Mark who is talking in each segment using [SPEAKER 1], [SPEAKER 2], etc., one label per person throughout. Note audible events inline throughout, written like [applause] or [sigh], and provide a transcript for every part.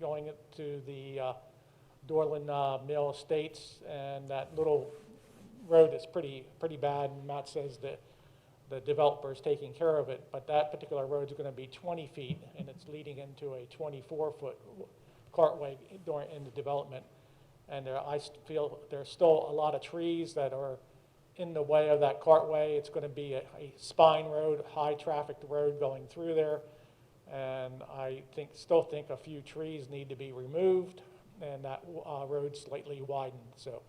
[SPEAKER 1] going to the uh, Dorland uh, Mill Estates, and that little road is pretty, pretty bad, and Matt says that the developer's taking care of it, but that particular road's gonna be twenty feet, and it's leading into a twenty-four foot cartway during, in the development. And there, I st- feel there's still a lot of trees that are in the way of that cartway. It's gonna be a, a spine road, high-trafficked road going through there. And I think, still think a few trees need to be removed, and that, uh, road slightly widened, so.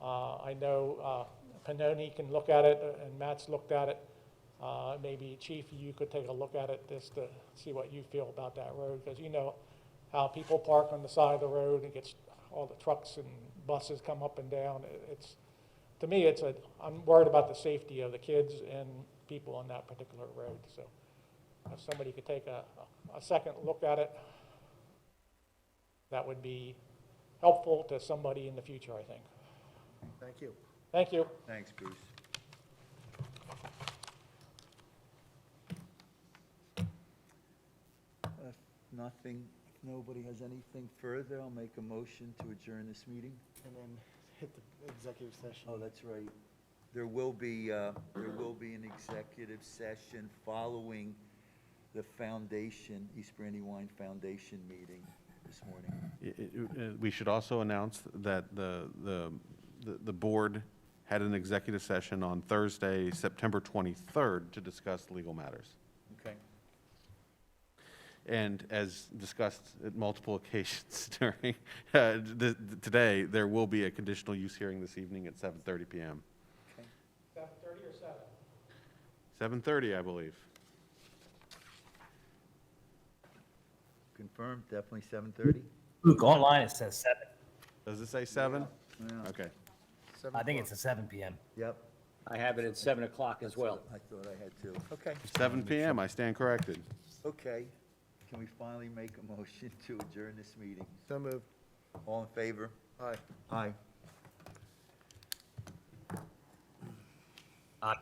[SPEAKER 1] Uh, I know uh, Panoni can look at it, uh, and Matt's looked at it. Uh, Maybe Chief, you could take a look at it just to see what you feel about that road, because you know how people park on the side of the road and gets, all the trucks and buses come up and down. It- It's, to me, it's a, I'm worried about the safety of the kids and people on that particular road, so if Uh, somebody could take a, a second look at it, that would be helpful to somebody in the future, I think.
[SPEAKER 2] Thank you.
[SPEAKER 1] Thank you.
[SPEAKER 3] Thanks, Bruce. If Nothing, if nobody has anything further, I'll make a motion to adjourn this meeting.
[SPEAKER 2] And then hit the executive session.
[SPEAKER 3] Oh, that's right. There will be, uh, there will be an executive session following the foundation, East Brandywine Foundation meeting this morning.
[SPEAKER 4] I- I- uh, We should also announce that the, the, the- the board had an executive session on Thursday, September 23rd, to discuss legal matters.
[SPEAKER 3] Okay.
[SPEAKER 4] And as discussed at multiple [laughs] occasions during, uh, th- th- today, there will be a conditional use hearing this evening at 7:30 PM.
[SPEAKER 3] Okay.
[SPEAKER 1] Seven thirty or seven?
[SPEAKER 4] 7:30, I believe.
[SPEAKER 3] Confirmed, definitely seven thirty?
[SPEAKER 5] Luke, online it says seven.
[SPEAKER 4] Does it say 7?
[SPEAKER 3] Yeah.
[SPEAKER 4] Okay.
[SPEAKER 5] I think it's a seven PM.
[SPEAKER 3] Yep,
[SPEAKER 6] I have it at 7 o'clock as well.
[SPEAKER 3] I thought I had two. Okay.
[SPEAKER 4] 7 PM, I stand corrected.
[SPEAKER 3] Okay, can we finally make a motion [laughs] to adjourn this meeting?
[SPEAKER 2] So moved.
[SPEAKER 3] All in favor?
[SPEAKER 2] Aye.
[SPEAKER 3] Aye.
[SPEAKER 5] Uh,